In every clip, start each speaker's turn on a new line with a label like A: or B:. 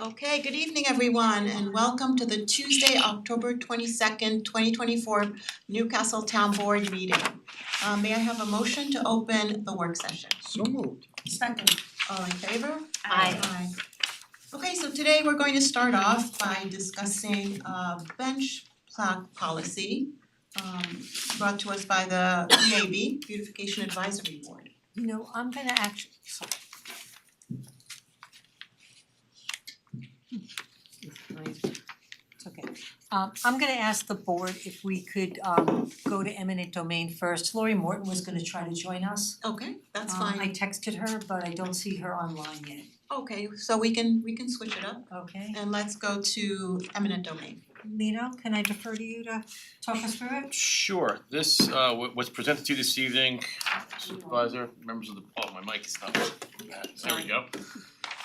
A: Okay, good evening everyone and welcome to the Tuesday, October twenty second, twenty twenty four Newcastle Town Board meeting. Uh, may I have a motion to open the work session?
B: So moved.
C: Second.
A: All in favor?
C: Aye.
D: Um,
A: Okay, so today we're going to start off by discussing uh bench plaque policy um brought to us by the Navy Beautification Advisory Board.
C: You know, I'm gonna actually, sorry. Hmm, It's okay. Um I'm gonna ask the board if we could um go to eminent domain first. Lori Morton was gonna try to join us.
A: Okay, that's
C: Um,
A: fine.
C: I texted her, but I don't see her online yet,
A: Okay, so we can we can switch it up
C: okay?
A: and let's go to eminent domain.
C: Lino, can I defer to you to talk us through it?
E: Sure, this uh wa- was presented to you this evening, supervisor, members of the, oh, my mic is not, there we go.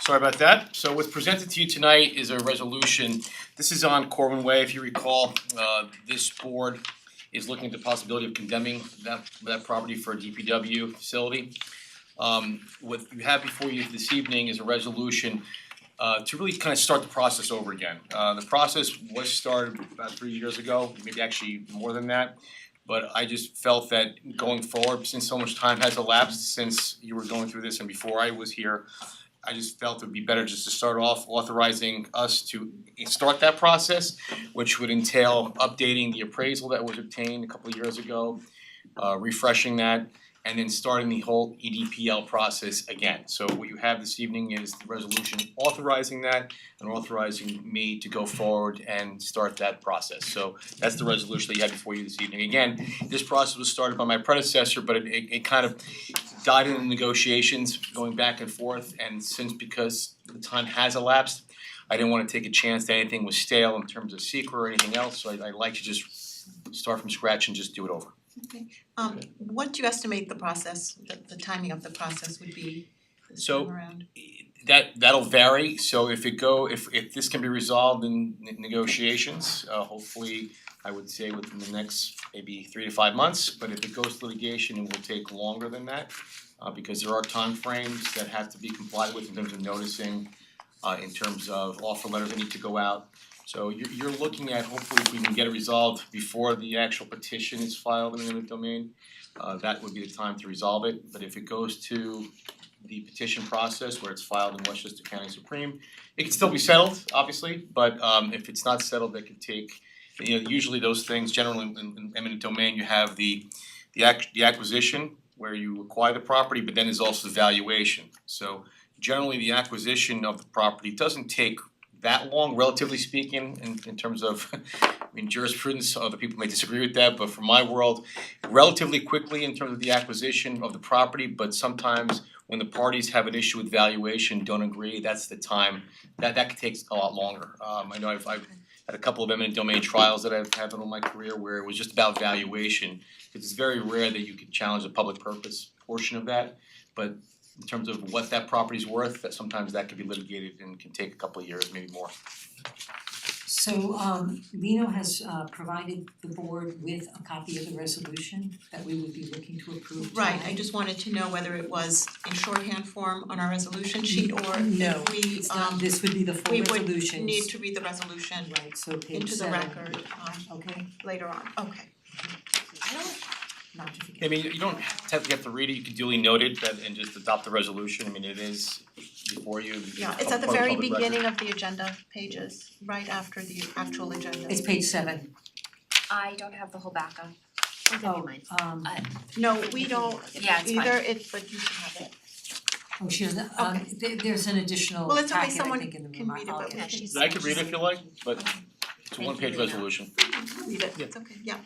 E: Sorry about that, so what's presented to you tonight is a resolution, this is on Corwin Way, if you recall, uh this board is looking at the possibility of condemning that that property for a DPW facility. Um what you have before you this evening is a resolution uh to really kind of start the process over again. Uh the process was started about three years ago, maybe actually more than that. But I just felt that going forward, since so much time has elapsed since you were going through this and before I was here, I just felt it would be better just to start off authorizing us to start that process, which would entail updating the appraisal that was obtained a couple of years ago, uh refreshing that, and then starting the whole E EDPL process again. So what you have this evening is the resolution authorizing that and authorizing me to go forward and start that process. So that's the resolution that you have before you this evening. Again, this process was started by my predecessor, but it it it kind of died in the negotiations, going back and forth, and since because the time has elapsed, I didn't wanna take a chance that anything was stale in terms of secret or anything else, so I I like to just start from scratch and just do it over.
A: Um what do you estimate the process, the the timing of the process would be this
E: So-
A: time around?
E: That that'll vary, so if it go, if if this can be resolved in ne- negotiations, uh hopefully, I would say within the next maybe three to five months, but if it goes to litigation, it will take longer than that. Uh because there are timeframes that have to be complied with in terms of noticing, uh in terms of offer letters that need to go out. So you're you're looking at hopefully if we can get it resolved before the actual petition is filed in the eminent domain, uh that would be the time to resolve it, but if it goes to the petition process where it's filed in Westchester County Supreme. It can still be settled, obviously, but um if it's not settled, they could take, you know, usually those things, generally in in eminent domain, you have the the ac- the acquisition where you acquire the property, but then there's also the valuation. So generally, the acquisition of the property doesn't take that long, relatively speaking, in in terms of I mean jurisprudence, other people may disagree with that, but from my world, relatively quickly in terms of the acquisition of the property, but sometimes when the parties have an issue with valuation, don't agree, that's the time, that that takes a lot longer. Um I know I've I've had a couple of eminent domain trials that I've had in my career where it was just about valuation. Cause it's very rare that you could challenge the public purpose portion of that, but in terms of what that property's worth, that sometimes that could be litigated and can take a couple of years, maybe more.
C: So um Lino has uh provided the board with a copy of the resolution that we would be looking to approve
A: Right,
C: tonight.
A: I just wanted to know whether it was in shorthand form on our resolution sheet or
C: No,
A: if we
C: It's not,
A: um
C: this would be the full
A: we would
C: resolution.
A: need to read the resolution
C: Right, so page
A: into the
C: seven.
A: record um
C: Okay,
A: later on, okay. I don't,
C: not to
E: I
C: forget.
E: mean, you don't have to get to read it, you could duly note it that and just adopt the resolution, I mean, it is before you,
A: yeah, it's at the very beginning of the agenda pages, right after the actual agenda.
C: It's page seven.
D: I don't have the whole backup. I'll give you mine.
C: Oh, um,
A: No, we don't
D: Yeah, it's fine.
A: either, it's but you should have it.
C: oh, she doesn't, um, there there's an additional
A: Well, it's okay,
C: packet, I
A: someone
C: think, in the
A: can
C: remark.
A: read it,
C: I'll
A: but
C: get
D: Yeah, she's.
E: I could read it if you like, but
A: Okay.
E: it's a
D: Thank you,
E: one page
D: Lena.
E: resolution.
A: Read it,
E: Yeah.
A: it's okay, yeah.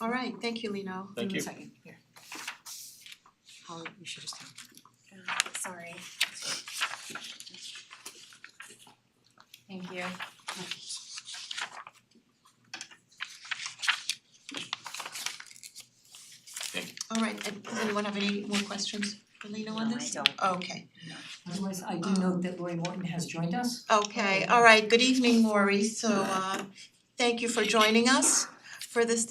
A: All right, thank you, Lino.
C: Give
E: Thank
C: me
E: you.
C: a second, here. Holly, you should just. have-
D: Uh, Sorry. Thank you.
A: All right, and does anyone have any more questions for Lino on
D: No, I
A: this?
D: don't.
A: Okay, Um,
C: Otherwise, I do note that Lori Morton has joined us.
A: okay, all right, good evening, Maury, so uh thank you for joining us for this